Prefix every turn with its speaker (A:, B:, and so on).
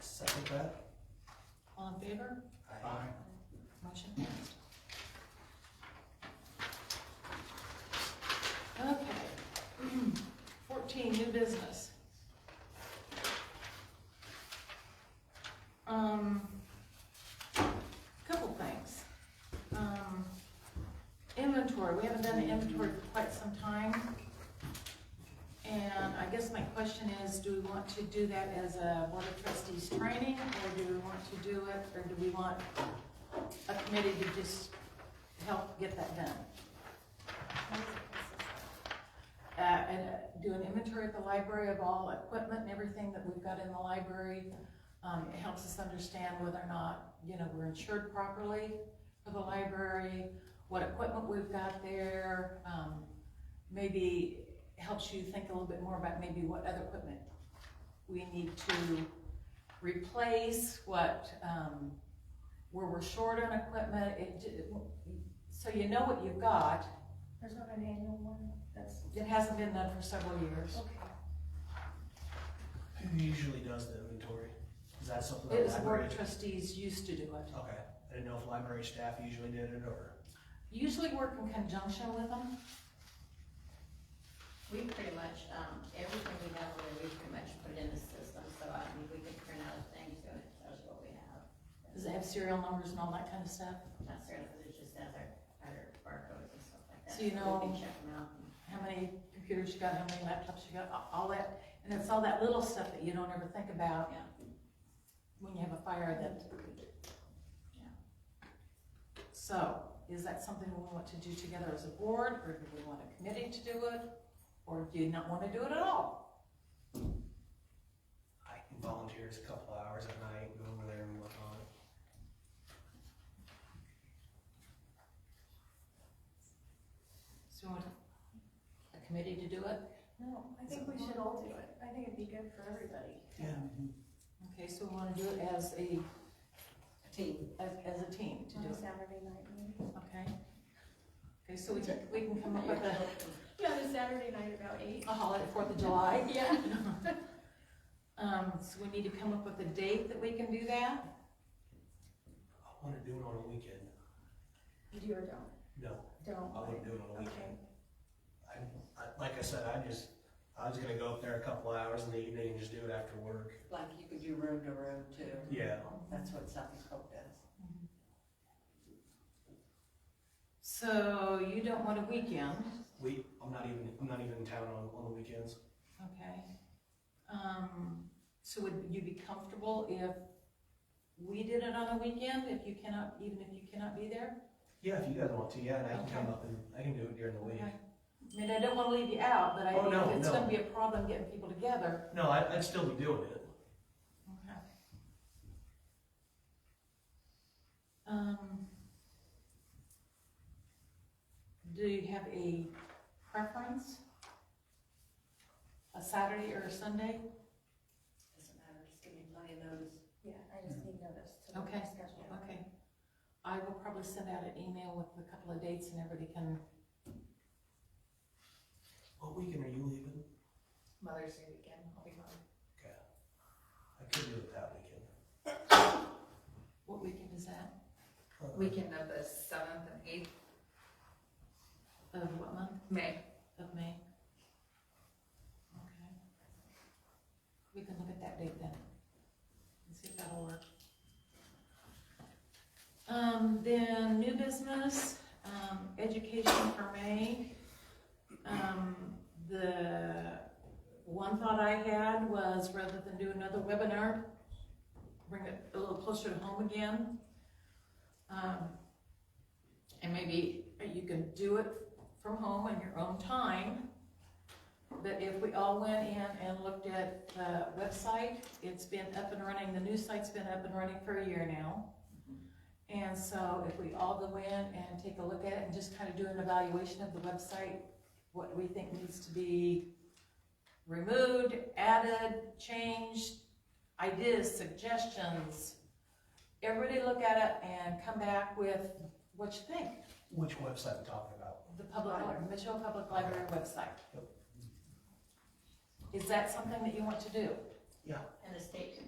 A: Second that?
B: All in favor?
A: Aye.
B: Motion passed. Okay. Fourteen, new business. Um, couple things. Um, inventory, we haven't done the inventory for quite some time. And I guess my question is, do we want to do that as a board of trustees training, or do we want to do it, or do we want a committee to just help get that done. Uh, and uh, do an inventory at the library of all equipment and everything that we've got in the library. Um, it helps us understand whether or not, you know, we're insured properly for the library, what equipment we've got there. Um, maybe helps you think a little bit more about maybe what other equipment we need to replace, what, um, where we're short on equipment, it, j- so you know what you've got.
C: There's not an annual one, that's,
B: It hasn't been done for several years.
C: okay.
A: Who usually does the inventory? Is that something
B: It
A: that
B: was the board
A: library?
B: of trustees used to do it.
A: Okay, I didn't know if library staff usually did it or,
B: Usually work in conjunction with them.
D: We pretty much, um, everything we have, over there, we pretty much put it in the system, so I mean, we can print out a thing to it, tells you what we have.
B: Does it have serial numbers and all that kind of stuff?
D: Not certain, but it just has our, our barcodes and stuff like that.
B: So you know-
D: We can check them out.
B: How many computers you got, how many laptops you got, a- all that. And it's all that little stuff that you don't ever think about
D: Yeah.
B: when you have a fire that. So, is that something we want to do together as a board, or do we want a committee to do it? Or do you not want to do it at all?
A: I can volunteer as a couple of hours at night, go over there and work on it.
B: So you want a committee to do it?
C: No, I think we should all do it. I think it'd be good for everybody.
B: Okay, so we wanna do it as a,
D: Team.
B: as, as a team to
C: On
B: do
C: a
B: it,
C: Saturday night, maybe.
B: okay? Okay, so we can, we can come up with a,
C: Yeah, the Saturday night about eight.
B: a holiday, Fourth of July.
C: Yeah.
B: Um, so we need to come up with a date that we can do that?
A: I wanna do it on a weekend.
C: You do or don't?
A: No,
C: Don't.
A: I wouldn't do it on a
C: Okay.
A: weekend. I, I, like I said, I just, I was gonna go up there a couple of hours in the evening and just do it after work.
E: Like you could do room to room too.
A: Yeah.
E: That's what South Dakota does.
B: So you don't want a weekend,
A: We, I'm not even, I'm not even in town on, on the weekends.
B: okay? Um, so would you be comfortable if we did it on a weekend, if you cannot, even if you cannot be there?
A: Yeah, if you guys want to, yeah, and I can come up and, I can do it during the week.
B: Okay. I mean, I don't wanna leave you out, but I
A: Oh, no,
B: think it's
A: no.
B: gonna be a problem getting people together.
A: No, I, I'd still be doing it.
B: Okay. Um. Do you have a preference? A Saturday or a Sunday?
E: Doesn't matter, just give me plenty of notice.
C: Yeah, I just need notice to the
B: Okay.
C: schedule.
B: Okay. I will probably send out an email with a couple of dates and everybody can,
A: What weekend are you leaving?
D: Mother's Day weekend, I'll be home.
A: Okay. I could do it that weekend.
B: what weekend is that?
A: Uh,
F: Weekend of the seventh and eighth
B: Of what month?
F: May.
B: Of May? Okay. We can look at that date then, and see if that'll work. Um, then new business, um, education for May. Um, the one thought I had was rather than do another webinar, bring it a little closer to home again. Um, and maybe you can do it from home on your own time. But if we all went in and looked at the website, it's been up and running, the new site's been up and running for a year now. And so if we all go in and take a look at it and just kind of do an evaluation of the website, what we think needs to be removed, added, changed, ideas, suggestions. Everybody look at it and come back with what you think
A: Which website are we talking about?
B: the public, li- Mitchell Public Library website.
A: Yep.
B: Is that something that you want to do?
A: Yeah,
D: And the state can